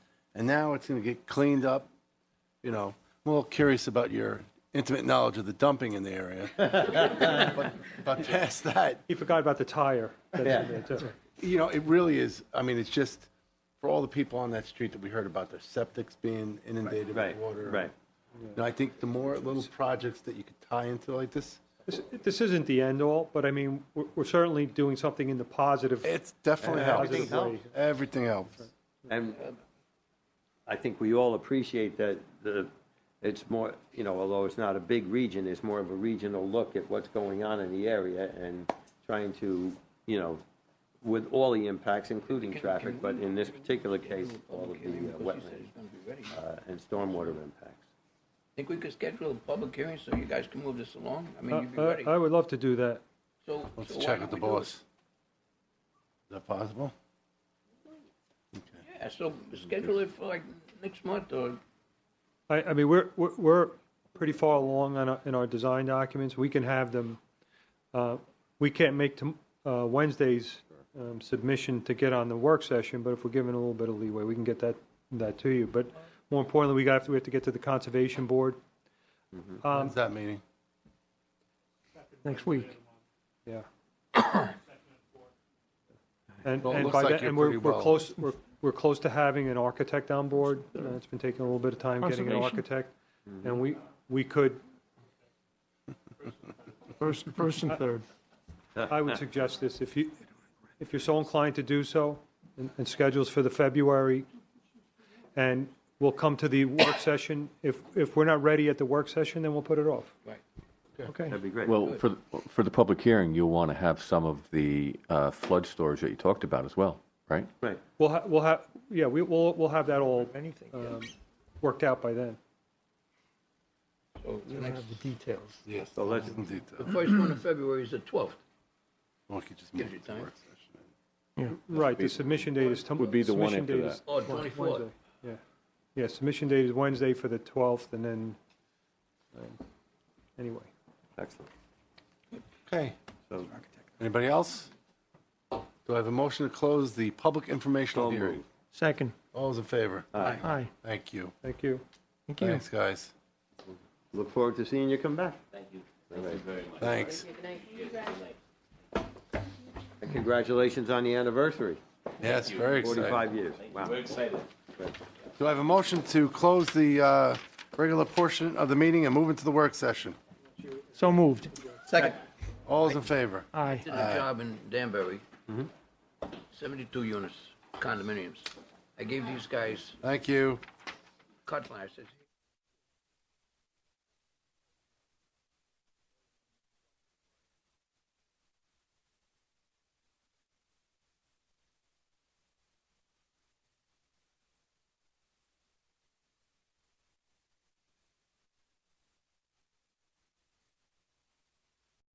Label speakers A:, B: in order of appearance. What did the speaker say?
A: and now it's going to get cleaned up. You know, I'm a little curious about your intimate knowledge of the dumping in the area. but, but past that,
B: He forgot about the tire. That's in there, too.
A: you know, it really is. I mean, it's just for all the people on that street that we heard about their septics being inundated
C: Right,
A: with water.
C: right.
A: And I think the more little projects that you could tie into like this,
B: This- This isn't the end all, but I mean, we're we're certainly doing something in the positive.
A: it's definitely
B: Yeah,
A: helps.
B: everything helps.
A: Everything helps.
C: And I think we all appreciate that the, it's more, you know, although it's not a big region, it's more of a regional look at what's going on in the area and trying to, you know, with all the impacts, including traffic, but in this particular case, all of the uh, wetland
D: I
C: uh, and stormwater impacts.
D: Think we could schedule a public hearing so you guys can move this along? I mean,
B: I-
D: you'd be
B: I
D: ready.
B: Uh, I would love to do that.
D: So,
A: Let's
D: so why
A: check with
D: don't
A: the
D: we do it?
A: boss. Is that possible?
D: Yeah, so schedule it for like next month or,
B: I, I mean, we're, we're, we're pretty far along on, our- in our design documents. We can have them, uh, we can't make tom- uh, Wednesday's um, submission to get on the work session, but if we're given a little bit of leeway, we can get that, that to you. But more importantly, we got, we have to get to the Conservation Board. Um,
D: Mm-hmm.
A: When's that meeting?
B: Next week. Yeah. And,
A: Well, it
B: and
A: looks
B: by
A: like
B: that,
A: you're
B: and we're,
A: pretty
B: we're
A: well-
B: close, we're, we're close to having an architect on board. Uh, It's been taking a little bit of time getting an
E: Conservation.
B: architect. And we, we could,
E: First, first and third.
B: I would suggest this, if you, if you're so inclined to do so, and, and schedules for the February, and we'll come to the work session. If, if we're not ready at the work session, then we'll put it off.
D: right.
B: Okay?
C: That'd be great.
F: Well, for, the- for the public hearing, you'll want to have some of the uh, flood storage that you talked about as well, right?
C: Right.
B: We'll, ha- we'll have, yeah, we, we'll, we'll have that all, um, worked out by then.
D: So the next,
A: Yes.
C: So let's-
A: in
D: the
A: detail.
D: first one in February is the twelfth.
A: Well, we could just
D: Gives
A: move
D: you
A: it to
D: time.
A: work session.
B: Right, the submission date is. tom-
F: Would be the one
B: submission
F: after
B: date
F: that.
B: is
D: Oh,
B: Wed-
D: 24th.
B: Wednesday, Yeah, yeah, submission date is Wednesday for the 12th, and then, um, anyway.
C: Excellent.
A: Okay.
C: So
A: Anybody else? Do I have a motion to close the public
C: so
A: informational hearing?
C: moved.
E: Second.
A: All those in favor?
C: Aye.
E: Aye.
A: Thank you.
B: Thank you.
E: Thank you.
A: Thanks, guys.
C: Look forward to seeing you come back. Thank you.
A: Thanks.
C: And congratulations on the anniversary,
A: Yes, very exciting.
C: 45 years. Wow.
A: Do I have a motion to close the uh, regular portion of the meeting and move into the work session?
E: So moved.
D: Second.
A: All those in favor?
E: Aye.
D: Did a job in Danbury.
A: Mm-hmm.
D: Seventy-two units, condominiums. I gave these guys
A: Thank you.
D: cutler, I said,